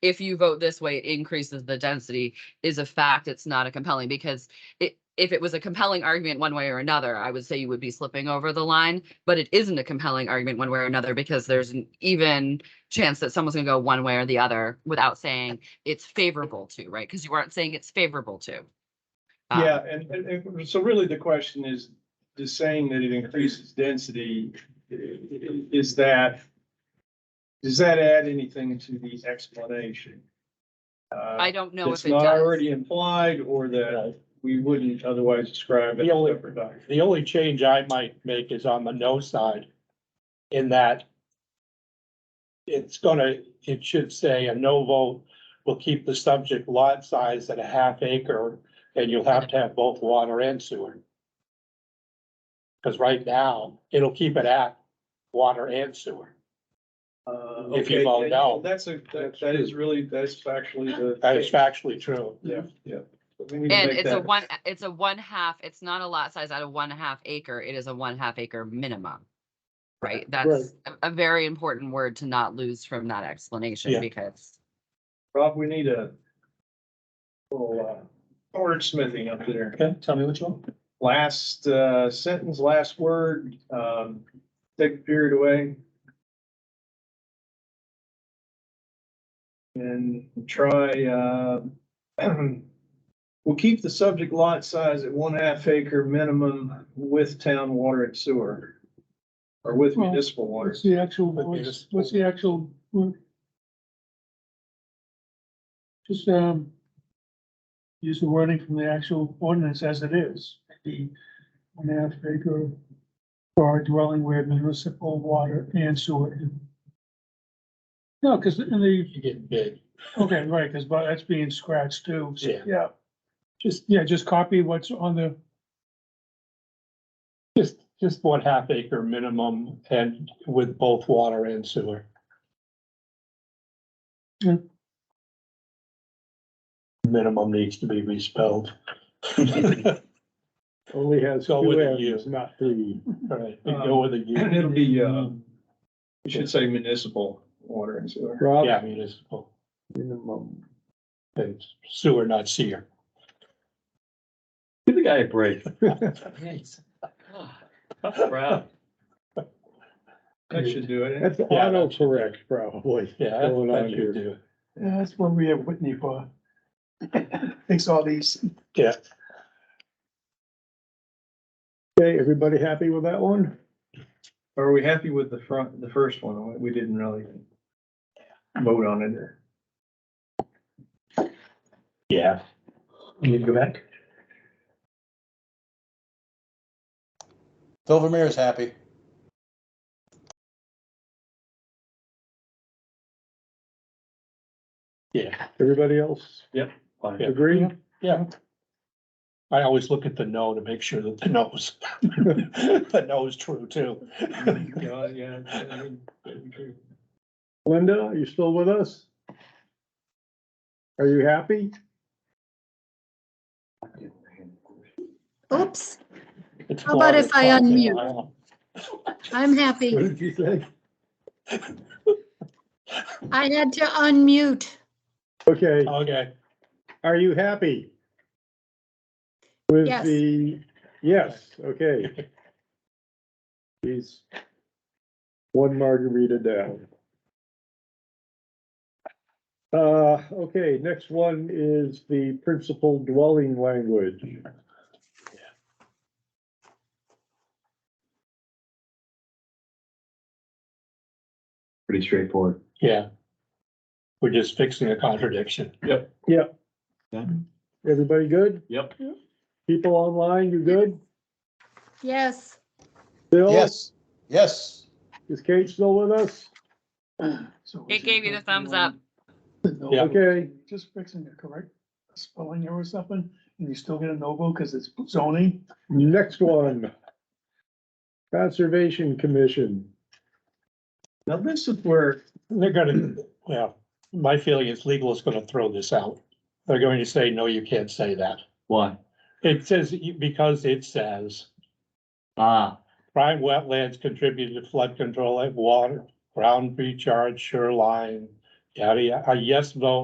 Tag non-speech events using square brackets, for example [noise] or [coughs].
if you vote this way, it increases the density is a fact. It's not a compelling because it, if it was a compelling argument one way or another, I would say you would be slipping over the line, but it isn't a compelling argument one way or another because there's an even chance that someone's gonna go one way or the other without saying it's favorable to, right? Because you aren't saying it's favorable to. Um, Yeah, and, and, and so really the question is, the saying that it increases density, i- i- is that, does that add anything to the explanation? I don't know if It's it not does. already implied or that we wouldn't otherwise describe it The as only- separate document. The only change I might make is on the no side. In that. It's gonna, it should say a no vote will keep the subject lot size at a half acre. And you'll have to have both water and sewer. Cause right now, it'll keep it at water and sewer. Uh, If you okay, vote yeah, no. That's a, that, that is really, that's factually the. That is factually true. Yeah, yeah. We need to And make it's a that- one, it's a one half, it's not a lot size out of one half acre, it is a one half acre minimum. Right, that's a, a very important word to not lose from that explanation Yeah. because, Rob, we need a little, uh, wordsmithing up there. Okay, tell me which one. Last uh, sentence, last word, um, take the period away. And try, uh, [clears throat] we'll keep the subject lot size at one half acre minimum with town water and sewer. Or with Well, municipal water. What's the actual, But what's, there's- what's the actual? word? Just, um, use the wording from the actual ordinance as it is, the one half acre for a dwelling where municipal water and sewer. No, because in the, You're getting big. okay, right, because that's being scratched too, so, Yeah. yeah. Just, yeah, just copy what's on the, Just, just one half acre minimum and with both water and sewer. Yeah. Minimum needs to be respelled. All Only has Go with two the M's, not three. right, we go with [clears throat] a And U, it'll be, uh, we should say municipal water and sewer. yeah, Rob, municipal, minimum. and sewer, not sewer. Give the guy a break. Yeah, That should do it. That's auto correct, probably. that's going what on you here. do. yeah, that's what we have Whitney for. [coughs] Thanks all these. Yeah, Okay, everybody happy with that one? Are we happy with the front, the first one? We didn't really vote on it. yeah. You go back? Silvermere's happy. Yeah, Everybody else Yeah. agree? yeah. I always look at the no to make sure that the no's, [laughs] the no's true too. Yeah, Oh yeah. I mean, that'd be true. Linda, are you still with us? Are you happy? Oops, It's How about Florida if I clock, and unmute? I don't- I'm happy. What did you say? I had to unmute. Okay, Okay, are you happy? With Yes. the, yes, okay. He's one margarita down. Uh, okay, next one is the principal dwelling language. pretty straightforward. yeah. We're just fixing a contradiction. Everybody good? Yep. People online, you good? Yes, Bill? Yes, yes. Is Kate still with us? it gave you the thumbs up. Yeah. Okay, just fixing it, correct spelling error or something, and you still get a no vote because it's zoning. next one. Conservation Commission. Now, this is where, They're gonna, well, my feeling is legal is gonna throw this out. They're going to say, no, you can't say that. Why? It says, because it says Ah, prime wetlands contribute to flood control like water, ground recharge, shoreline, Yeah, a a yes vote